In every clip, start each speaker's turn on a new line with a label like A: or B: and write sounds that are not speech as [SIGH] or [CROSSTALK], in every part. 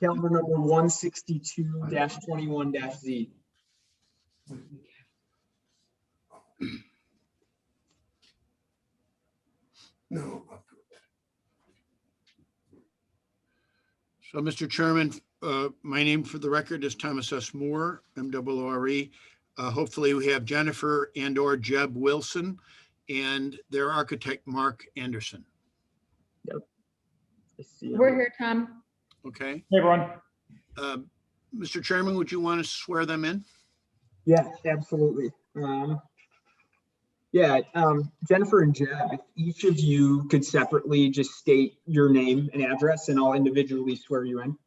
A: calendar number one sixty-two twenty-one Z.
B: No,
C: So, Mr. Chairman, uh, my name for the record is Thomas S. Moore, M double Uh, Hopefully, we have Jennifer and/or Jeb Wilson and their architect, Mark Anderson.
A: I see.
D: We're here, Tom.
C: Okay?
E: Hey, everyone.
C: Um, Mr. Chairman, would you want to swear them in?
A: Yes, absolutely. Um, yeah, um, Jennifer and Jeb, if each of you could separately just state your name and address and I'll individually swear you in.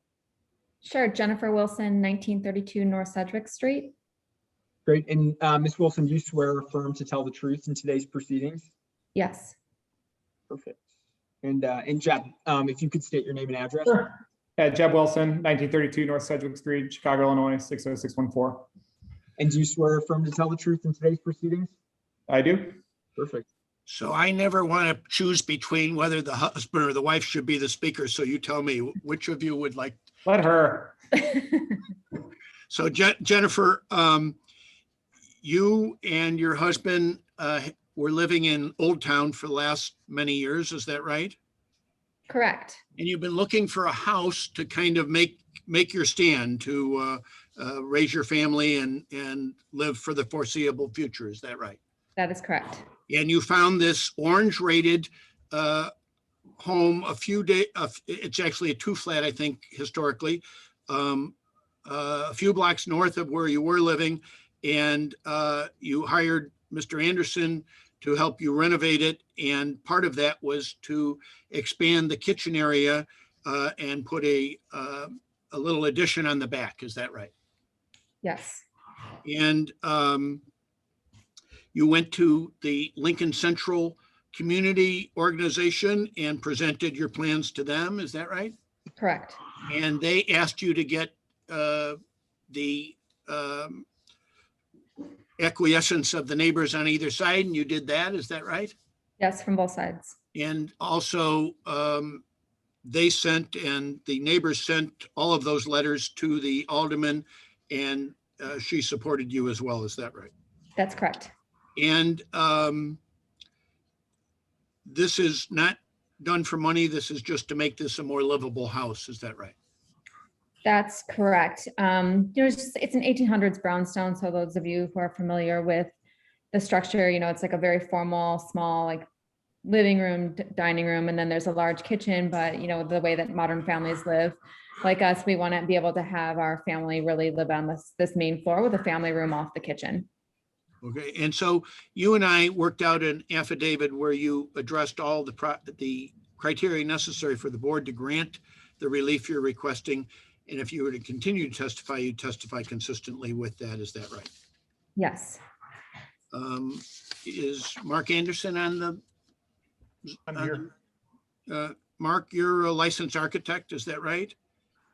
D: Sure, Jennifer Wilson, 1932 North Sedgwick Street.
A: Great. And, uh, Ms. Wilson, do you swear or affirm to tell the truth in today's proceedings?
D: Yes, [LAUGHS]
A: Perfect. And, uh, and Jeb, um, if you could state your name and address.
E: Uh, Jeb Wilson, 1932 North Sedgwick Street, Chicago, Illinois, 60614.
A: And do you swear or affirm to tell the truth in today's proceedings?
E: I do.
A: Perfect.
C: So I never want to choose between whether the husband or the wife should be the speaker. So you tell me which of you would like.
E: Let her.
C: So Je- Jennifer, um, you and your husband uh, were living in Old Town for the last many years, is that right?
D: correct.
C: And you've been looking for a house to kind of make, make your stand to uh, uh, raise your family and, and live for the foreseeable future, is that right?
D: That is correct.
C: and you found this orange rated uh, home a few day, uh, it's actually a two flat, I think, historically. um, uh, A few blocks north of where you were living and uh, you hired Mr. Anderson to help you renovate it. And part of that was to expand the kitchen area uh, and put a, uh, a little addition on the back. Is that right?
D: Yes,
C: And um, you went to the Lincoln Central Community Organization and presented your plans to them, is that right?
D: correct.
C: And they asked you to get uh, the um, acquiescence of the neighbors on either side, and you did that, is that right?
D: Yes, from both sides.
C: And also, um, they sent and the neighbors sent all of those letters to the alderman, and uh, she supported you as well, is that right?
D: That's correct.
C: And um, this is not done for money. This is just to make this a more livable house. Is that right?
D: That's correct. Um, you know, it's just, it's an 1800s brownstone. So those of you who are familiar with the structure, you know, it's like a very formal, small, like living room, d- dining room, and then there's a large kitchen. But you know, the way that modern families live, like us, we want to be able to have our family really live on this this main floor with a family room off the kitchen.
C: Okay. And so you and I worked out an affidavit where you addressed all the pro- the criteria necessary for the board to grant the relief you're requesting. And if you were to continue to testify, you testify consistently with that. Is that right?
D: Yes,
C: Um, is Mark Anderson on the?
E: I'm
C: on
E: here.
C: the- Uh, Mark, you're a licensed architect. Is that right?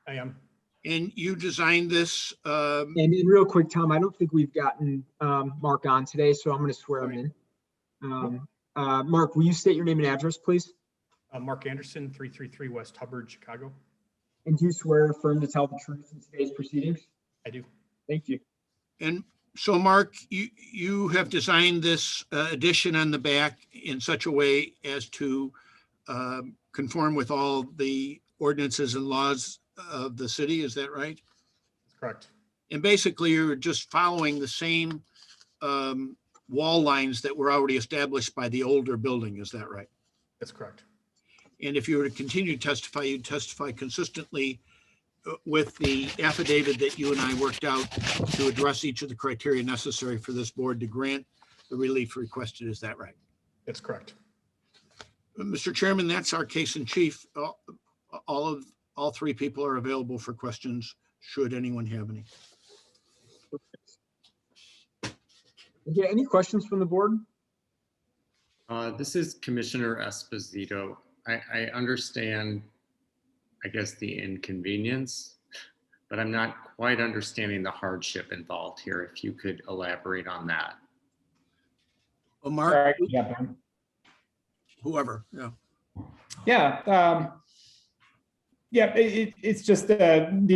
E: I am.
C: And you designed this, um,
A: And, and real quick, Tom, I don't think we've gotten, um, Mark on today, so I'm gonna swear him in. Um, uh, Mark, will you state your name and address, please?
F: Uh, Mark Anderson, 333 West Hubbard, Chicago.
A: And do you swear or affirm to tell the truth in today's proceedings?
F: I do.
A: Thank you.
C: and so Mark, you, you have designed this uh, addition on the back in such a way as to um, conform with all the ordinances and laws of the city, is that right?
F: That's correct.
C: And basically you're just following the same um, wall lines that were already established by the older building, is that right?
F: That's correct.
C: And if you were to continue to testify, you'd testify consistently uh, with the affidavit that you and I worked out to address each of the criteria necessary for this board to grant the relief requested. Is that right?
F: That's correct.
C: Uh, Mr. Chairman, that's our case in chief. Uh, All of, all three people are available for questions, should anyone have any.
A: Okay, any questions from the board?
G: Uh, This is Commissioner Esposito. I, I understand, I guess, the inconvenience, but I'm not quite understanding the hardship involved here. If you could elaborate on that.
C: Oh, Mark,
E: Sorry, I can jump in.
C: whoever, yeah.
E: Yeah. um, Yeah, it, it- it's just, uh, the